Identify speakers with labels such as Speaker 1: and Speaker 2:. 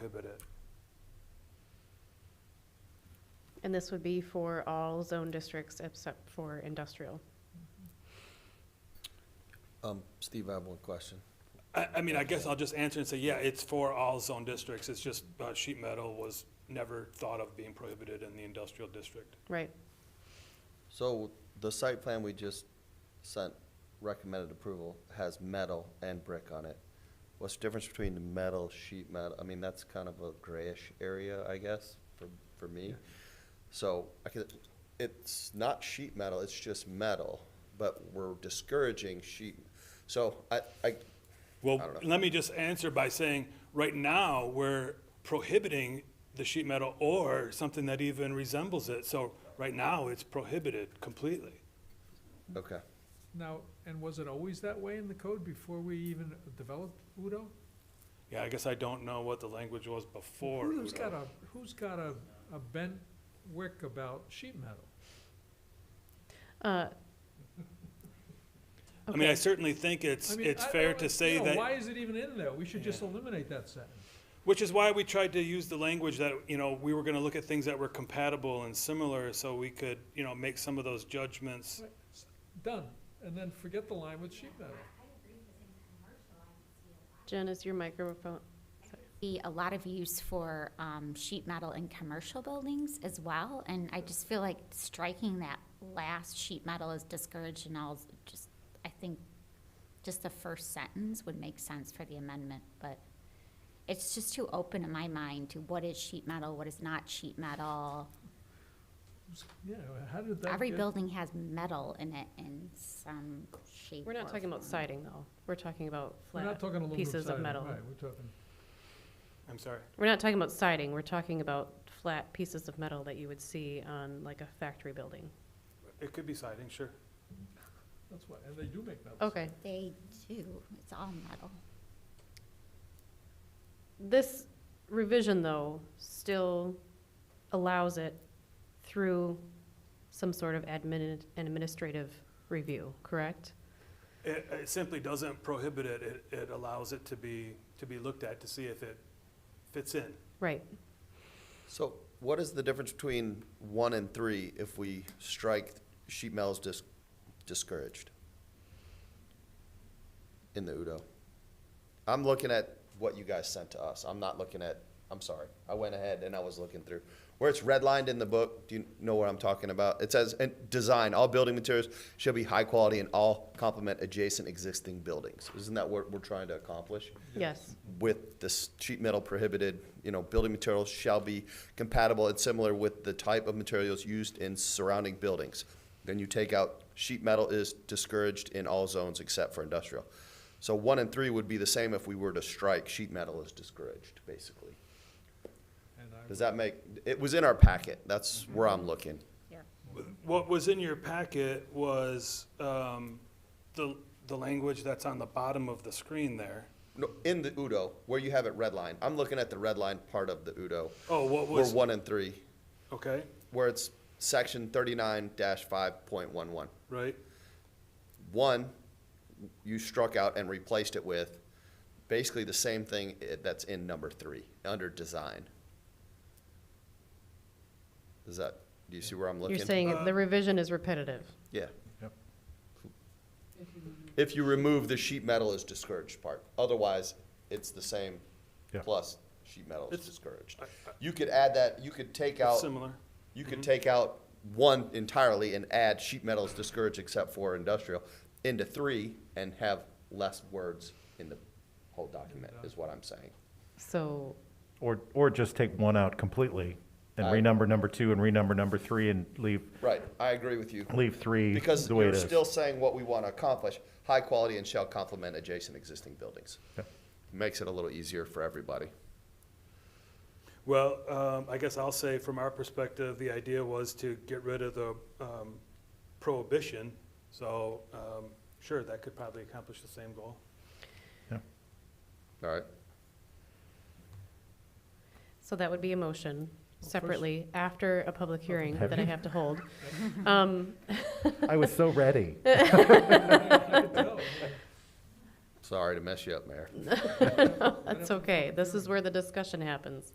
Speaker 1: prohibit it.
Speaker 2: And this would be for all zone districts except for industrial.
Speaker 3: Um, Steve, I have one question.
Speaker 1: I, I mean, I guess I'll just answer and say, yeah, it's for all zone districts. It's just, uh, sheet metal was never thought of being prohibited in the industrial district.
Speaker 2: Right,
Speaker 3: So the site plan we just sent recommended approval has metal and brick on it. What's the difference between the metal, sheet metal? I mean, that's kind of a grayish area, I guess, for, for me. So I could, it's not sheet metal, it's just metal, but we're discouraging sheet. So I, I, I
Speaker 1: Well,
Speaker 3: don't know.
Speaker 1: let me just answer by saying, right now, we're prohibiting the sheet metal or something that even resembles it. So right now, it's prohibited completely.
Speaker 3: okay.
Speaker 4: Now, and was it always that way in the code before we even developed Udo?
Speaker 1: Yeah, I guess I don't know what the language was before.
Speaker 4: Udo's
Speaker 1: Udo.
Speaker 4: got a, who's got a, a bent wick about sheet metal?
Speaker 2: uh.
Speaker 1: I mean, I
Speaker 2: okay.
Speaker 1: certainly think it's,
Speaker 4: I mean,
Speaker 1: it's
Speaker 4: I-
Speaker 1: fair
Speaker 4: I-
Speaker 1: to
Speaker 4: you
Speaker 1: say
Speaker 4: know,
Speaker 1: that.
Speaker 4: Why is it even in there? We should just eliminate that sentence.
Speaker 1: Which is why we tried to use the language that, you know, we were gonna look at things that were compatible and similar, so we could, you know, make some of those judgments.
Speaker 4: Right, s- Done, and then forget the line with sheet metal.
Speaker 2: Jen, is your microphone,
Speaker 5: see a lot of use for um, sheet metal in commercial buildings as well, and I just feel like striking that last sheet metal is discouraged and all, just, I think, just the first sentence would make sense for the amendment, but it's just too open in my mind to what is sheet metal, what is not sheet metal.
Speaker 4: S- Yeah, how did that
Speaker 5: Every
Speaker 4: get-
Speaker 5: building has metal in it in some shape
Speaker 2: we're not
Speaker 5: or
Speaker 2: talking about
Speaker 5: form.
Speaker 2: siding though, we're talking about
Speaker 4: We're
Speaker 2: flat.
Speaker 4: not talking aluminum
Speaker 2: pieces of
Speaker 4: siding,
Speaker 2: metal.
Speaker 4: Right, we're talking,
Speaker 1: I'm sorry.
Speaker 2: We're not talking about siding, we're talking about flat pieces of metal that you would see on like a factory building.
Speaker 1: It could be siding, sure.
Speaker 4: that's why, and they do make metal.
Speaker 2: Okay,
Speaker 5: They do, it's all metal.
Speaker 2: this revision though still allows it through some sort of admin, administrative review, correct?
Speaker 1: It, it simply doesn't prohibit it, it, it allows it to be, to be looked at to see if it fits in.
Speaker 2: Right,
Speaker 3: So what is the difference between one and three if we strike sheet metal's dis- discouraged? In the Udo? I'm looking at what you guys sent to us. I'm not looking at, I'm sorry. I went ahead and I was looking through. Where it's redlined in the book, do you know what I'm talking about? It says, and design, all building materials shall be high quality and all complement adjacent existing buildings. Isn't that what we're trying to accomplish?
Speaker 2: yes,
Speaker 3: with this sheet metal prohibited, you know, building materials shall be compatible and similar with the type of materials used in surrounding buildings. Then you take out sheet metal is discouraged in all zones except for industrial. So one and three would be the same if we were to strike sheet metal is discouraged, basically.
Speaker 4: And I
Speaker 3: Does that make, it was in our packet, that's where I'm looking.
Speaker 1: What was in your packet was, um, the, the language that's on the bottom of the screen there.
Speaker 3: No, in the Udo, where you have it redlined, I'm looking at the redline part of the Udo.
Speaker 1: Oh, what
Speaker 3: Where
Speaker 1: was,
Speaker 3: one and three,
Speaker 1: okay,
Speaker 3: where it's section thirty-nine dash five point one one.
Speaker 1: right?
Speaker 3: One, you struck out and replaced it with basically the same thing i- that's in number three, under design. Does that, do you see where I'm looking?
Speaker 2: you're saying
Speaker 1: Uh,
Speaker 2: the revision is repetitive.
Speaker 3: Yeah.
Speaker 4: Yep.
Speaker 3: If you remove the sheet metal is discouraged part, otherwise, it's the same
Speaker 4: Yeah.
Speaker 3: plus sheet metal is
Speaker 1: It's-
Speaker 3: discouraged.
Speaker 1: I- I-
Speaker 3: You could add that, you could take out.
Speaker 1: It's similar.
Speaker 3: You could take out one entirely and add sheet metal is discouraged except for industrial into three and have less words in the whole document is what I'm saying.
Speaker 2: So,
Speaker 6: Or, or just take one out completely and
Speaker 3: I-
Speaker 6: renumber number two and renumber number three and leave,
Speaker 3: Right, I agree with you.
Speaker 6: leave three
Speaker 3: Because
Speaker 6: the way
Speaker 3: you're
Speaker 6: it is.
Speaker 3: still saying what we want to accomplish, high quality and shall complement adjacent existing buildings.
Speaker 6: Yeah.
Speaker 3: Makes it a little easier for everybody.
Speaker 1: Well, um, I guess I'll say from our perspective, the idea was to get rid of the, um, prohibition. So, um, sure, that could probably accomplish the same goal.
Speaker 3: All right,
Speaker 2: so that would be a motion
Speaker 4: first-
Speaker 2: separately after a public hearing
Speaker 6: Oh, Have
Speaker 2: that I
Speaker 6: you?
Speaker 2: have to hold. Um,
Speaker 6: I was so ready.
Speaker 4: I could tell.
Speaker 3: Sorry to mess you up, Mayor.
Speaker 2: That's okay. This is where the discussion happens.